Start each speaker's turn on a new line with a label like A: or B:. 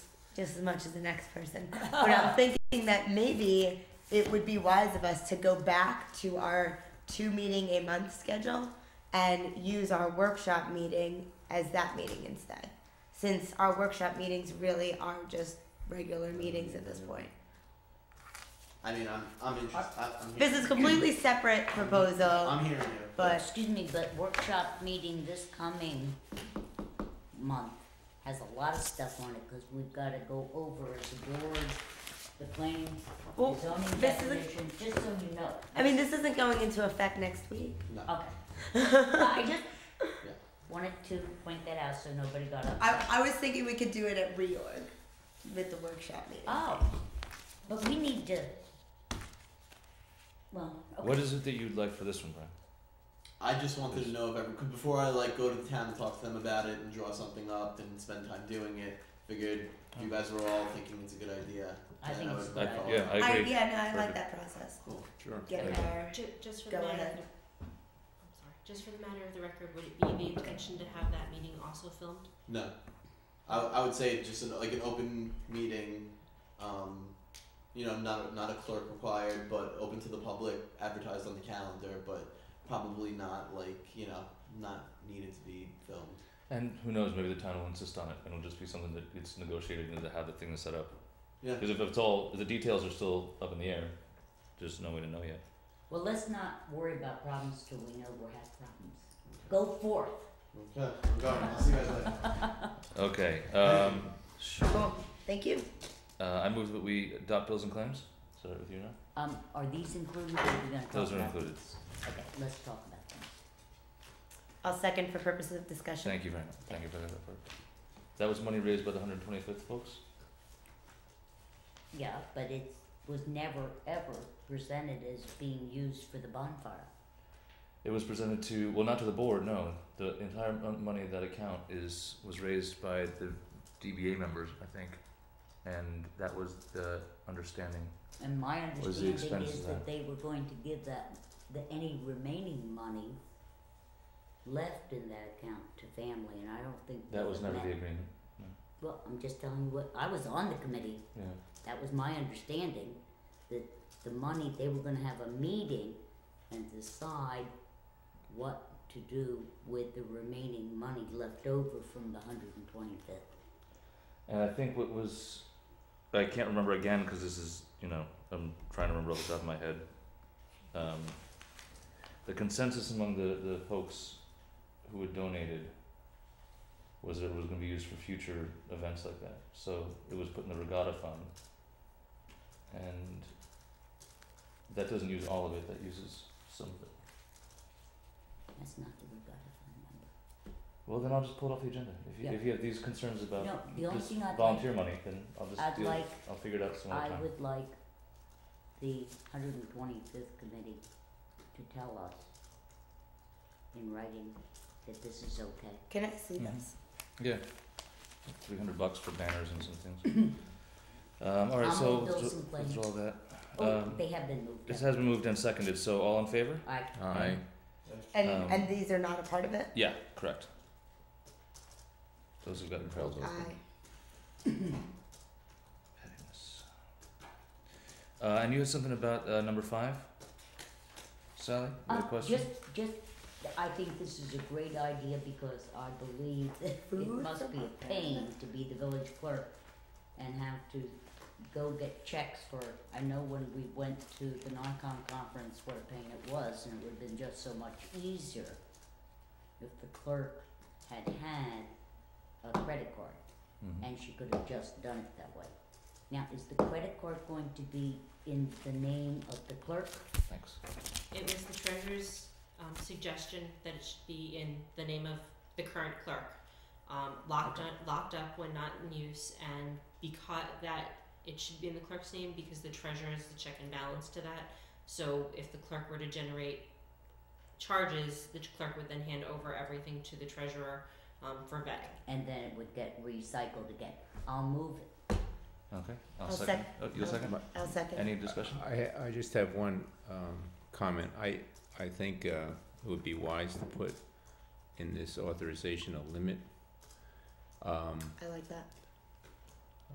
A: just as much as the next person. But I'm thinking that maybe it would be wise of us to go back to our two meeting a month schedule and use our workshop meeting as that meeting instead. Since our workshop meetings really are just regular meetings at this point.
B: I mean, I'm, I'm interested, I'm
A: This
B: hearing,
A: is completely separate proposal,
B: I'm hearing you.
A: but
C: uh, Excuse me, but workshop meeting this coming month has a lot of stuff on it, cause we've gotta go over as a board, the planning,
A: Well,
C: the zoning
A: this is a-
C: definition, just so you know.
A: I mean, this isn't going into effect next week.
B: No,
C: Okay. I just wanted to point that out so nobody got upset.
A: I, I was thinking we could do it at reorg with the workshop meeting.
C: Oh, but we need to, well,
D: What
C: okay,
D: is it that you'd like for this one, Brian?
B: I just wanted to know if every, 'cause before I like go to the town and talk to them about it and draw something up and spend time doing it, figured if you guys were all thinking it's a good idea,
C: I
B: then
C: think
B: I
C: it's
B: would
C: a good
B: follow
C: idea.
D: yeah, I agree.
A: yeah, no, I like
D: Perfect.
A: that process.
B: Cool.
D: Sure.
A: Get
D: I-
A: our
E: Ju- just for
A: Go
E: the matter
A: ahead.
E: of the, I'm sorry, just for the matter of the record, would it be the intention to have that meeting also filmed?
B: No. I, I would say just an, like an open meeting, um, you know, not not a clerk required, but open to the public, advertised on the calendar, but probably not like you know not needed to be filmed.
D: And who knows? Maybe the town will insist on it, and it'll just be something that gets negotiated into how the thing is set up.
B: Yeah.
D: Because if it's all, if the details are still up in the air, there's no way to know yet.
C: well, let's not worry about problems till we know we have problems. Go forth.
B: Okay, I'm going. I'll see you guys later.
D: Okay. Um,
A: Cool. Thank you.
D: uh, I move that we adopt bills and claims. Is that with you now?
C: Um, are these included, or are we gonna talk about?
D: Those are included.
C: these? Okay, let's talk about them.
A: I'll second for purposes of discussion.
D: Thank you very much. Thank you for that effort. That was money raised by the 125th folks.
C: Yeah, but it was never, ever presented as being used for the bonfire.
D: It was presented to well, not to the board. No, the entire mon- money of that account is was raised by the DBA members, I think, and that was the understanding.
C: And my
D: Was the
C: understanding
D: expense
C: is
D: of
C: that
D: that?
C: they were going to give that, the, any remaining money left in that account to family, and I don't think
D: That was never
C: met.
D: the agreement.
C: Well, I'm just telling you what, I was on the committee,
D: Yeah.
C: that was my understanding, that the money, they were gonna have a meeting and decide what to do with the remaining money left over from the hundred and twenty-fifth.
D: And I think what was, I can't remember again because this is, you know, I'm trying to remember off the top of my head. Um, the consensus among the, the folks who had donated was that it was going to be used for future events like that. So it was put in the regatta fund. And that doesn't use all of it, that uses some of it.
C: That's not the regatta
D: Well, then I'll just pull it off the agenda. If you,
C: Yeah.
D: if you have these concerns about
C: No, the only
D: this
C: thing I'd like-
D: volunteer money, then I'll just
C: I'd
D: deal,
C: like-
D: I'll figure it out some other
C: fund number.
D: time.
C: I would like the hundred and twenty-fifth committee to tell us in writing that this is okay.
A: Can I see
D: Mhm.
A: this?
D: Yeah. Three hundred bucks for banners and some things. Um, alright,
C: I'll
D: so
C: move those
D: withdraw-
C: and claim.
D: withdraw that.
C: Oh,
D: Um,
C: they have been moved
D: This
C: up.
D: has been moved and seconded, so all in favor?
C: I,
D: Aye.
A: And
D: Um,
A: and these are not a part of it.
D: Yeah, correct. Those who've gotten trails
A: I
D: open. Headings. Uh, and you had something about, uh, number five? Sally, you had a
C: Um,
D: question?
C: Just, just, I think this is a great idea because I believe that it
A: Ooh,
C: must be a pain to be the village clerk and have to go get checks for, I know when we went to the Nikon conference, what a pain it was, and it would've been just so much easier if the clerk had had a credit card
D: Mhm.
C: and she could have just done it that way. Now, is the credit card going to be in the name of the clerk?
D: Thanks.
E: It was the treasurer's um, suggestion that it should be in the name of the current clerk, um, locked
C: Okay.
E: up, locked up when not in use, and because that it should be in the clerk's name because the treasurer is the check and balance to that. So if the clerk were to generate charges, the clerk would then hand over everything to the treasurer um, for vetting.
C: and then it would get recycled again. I'll move it.
D: Okay, I'll
A: I'll
D: second. Oh, you'll second?
A: I'll second.
D: Any discussion?
F: I, I just have one um, comment. I, I think uh, it would be wise to put in this authorization a limit. Um,
A: I like that.